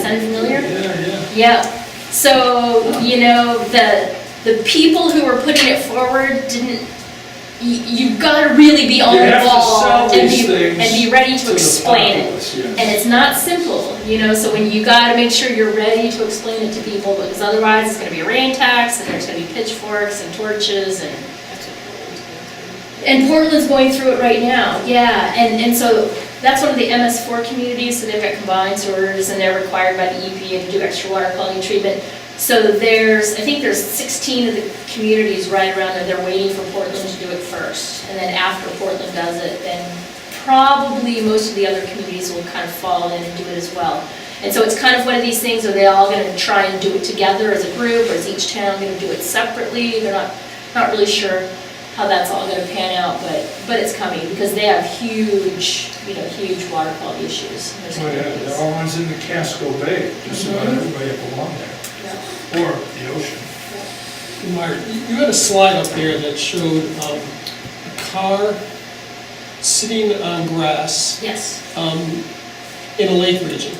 sound familiar? Yeah, yeah. Yep. So, you know, the, the people who were putting it forward didn't, you, you've gotta really be on You the have to sell ball and these be, things and be ready to the to explain it. populace, yes. And it's not simple, you know, so when you gotta make sure you're ready to explain it to people, because otherwise it's gonna be a rain tax, and there's gonna be pitchforks and torches and. And Portland's going through it right now, yeah, and, and so that's one of the MS four communities, so they've got combined sewers, and they're required by the EPA to do extra water quality treatment. So there's, I think there's sixteen of the communities right around there, they're waiting for Portland to do it first, and then after Portland does it, then probably most of the other communities will kind of fall in and do it as well. And so it's kind of one of these things, are they all gonna try and do it together as a group, or is each town gonna do it separately? They're not, not really sure how that's all gonna pan out, but, but it's coming, because they have huge, you know, huge water quality issues. in those Oh, yeah, communities. they're all ones in the Casco Bay, just about everybody up along Yeah. there, or the ocean. Mark, you had a slide up there that showed um, a car sitting on grass Yes, um, in a lake region.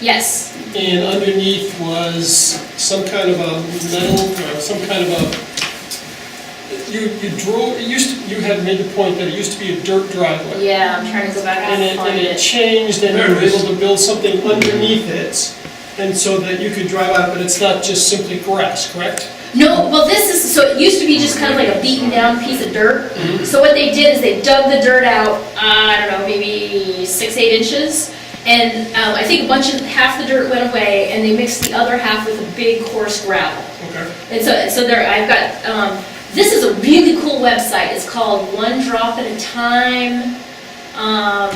yes, And underneath was some kind of a metal, or some kind of a, you, you drove, it used, to- you had made the point that it used to be a dirt driveway. yeah, I'm trying to go back and And it, find and it it. changed and you There were it is. able to build something underneath it. And so that you could drive out, but it's not just simply grass, correct? No, well, this is, so it used to be just kind of like a beaten down piece of dirt. So what they did is they dug the dirt out, uh, I don't know, maybe six, eight inches. And um, I think a bunch of, half the dirt went away and they mixed the other half with a big coarse gravel. Okay. And so, so there, I've got, um, this is a really cool website, it's called One Drop at a Time, um,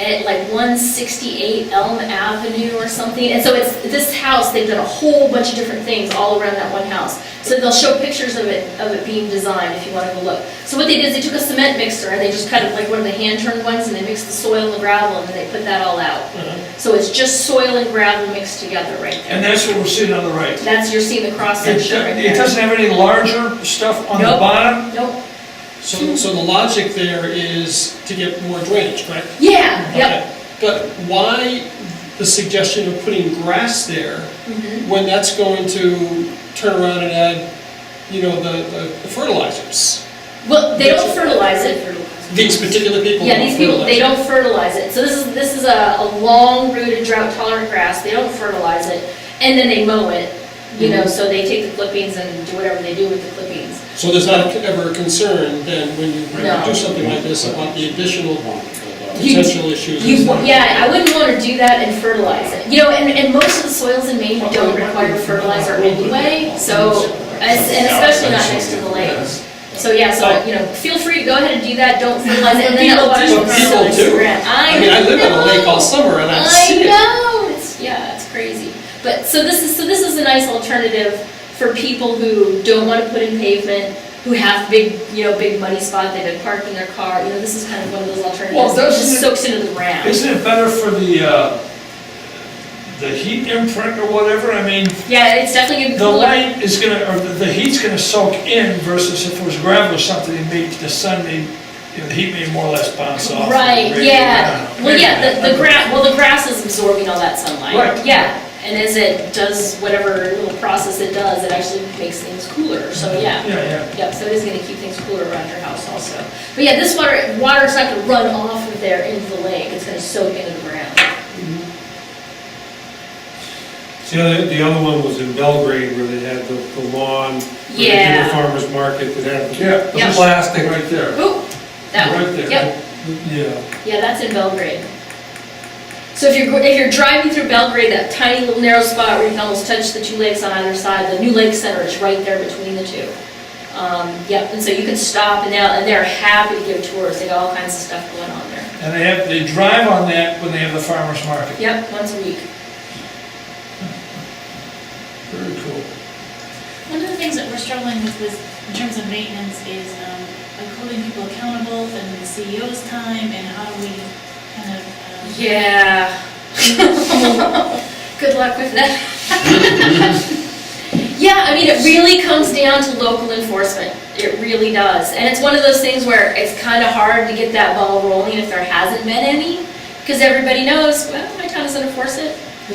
at like one sixty-eight Elm Avenue or something, and so it's, this house, they've done a whole bunch of different things all around that one house. So they'll show pictures of it, of it being designed if you wanna go look. So what they did is they took a cement mixer and they just kind of like one of the hand-turned ones and they mixed the soil and the gravel and then they put that all out. Uh-huh. So it's just soil and gravel mixed together right there. And that's what we're seeing on the right. That's, you're seeing the cross It section right do- there. it doesn't have any larger stuff on the Nope. bottom? Nope. So, so the logic there is to get more drainage, right? Yeah, yep. Okay. But why the suggestion of putting grass there Mm-hmm. when that's going to turn around and add, you know, the the fertilizers? Well, they don't fertilize it. These particular people Yeah, these don't people, they fertilize. don't fertilize it. So this is, this is a, a long rooted drought tolerant grass. They don't fertilize it. And then they mow it, you know, so they take the clippings and do whatever they do with the clippings. So there's not ever a concern then when you No. do something like this about the additional You- potential issues? You, wa- yeah, I wouldn't want to do that and fertilize it. You know, and, and most of the soils in Maine don't require fertilizer anyway, so, as- and especially not next to the lake. So, yeah, so, you know, feel free to go ahead and do that, don't fertilize it, and then People otherwise do. you'll People fertilize do. the ground. I I mean, I live on a lake all know. summer and I've I seen it. know, it's, yeah, it's crazy. But, so this is, so this is a nice alternative for people who don't want to put in pavement, who have big, you know, big muddy spot, they've been parking their car, you know, this is kind of one of those alternatives. that doesn't just it- soaks into the ground. Isn't it better for the, uh, the heat imprint or whatever? I mean, Yeah, it's definitely gonna be the cooler. light is gonna, or the- the heat's gonna soak in versus if it was gravel or something, it may, the sun may, you know, the heat may more or less bounce off. Right, Radiate yeah, around. well, yeah, the, the Okay. grass, well, the grass is absorbing all that sunlight. Right. Yeah, and as it does whatever little process it does, it actually makes things cooler, so yeah. Yeah, yeah. Yep, so it is gonna keep things cooler around your house also. But yeah, this water, water's not gonna run off of there into the lake, it's gonna soak into the ground. See, the other- the other one was in Belgrade where they had the the lawn, where they did Yeah. the farmer's market that had the Yeah, Yeah. the plastic. right there. Ooh, that one, Right there. yep. Yeah. Yeah, that's in Belgrade. So if you're, if you're driving through Belgrade, that tiny little narrow spot where you can almost touch the two lakes on either side, the new lake center is right there between the two. Um, yep, and so you can stop and now, and they're happy to give tours, they got all kinds of stuff going on there. And they have, they drive on that when they have the farmer's market. Yep, once a week. Very cool. One of the things that we're struggling with is, in terms of maintenance, is um, like holding people accountable and the CEO's time and how do we kind of. um, Yeah. Good luck with that. Yeah, I mean, it really comes down to local enforcement. It really does. And it's one of those things where it's kind of hard to get that ball rolling if there hasn't been any. Because everybody knows, well, my town doesn't enforce it.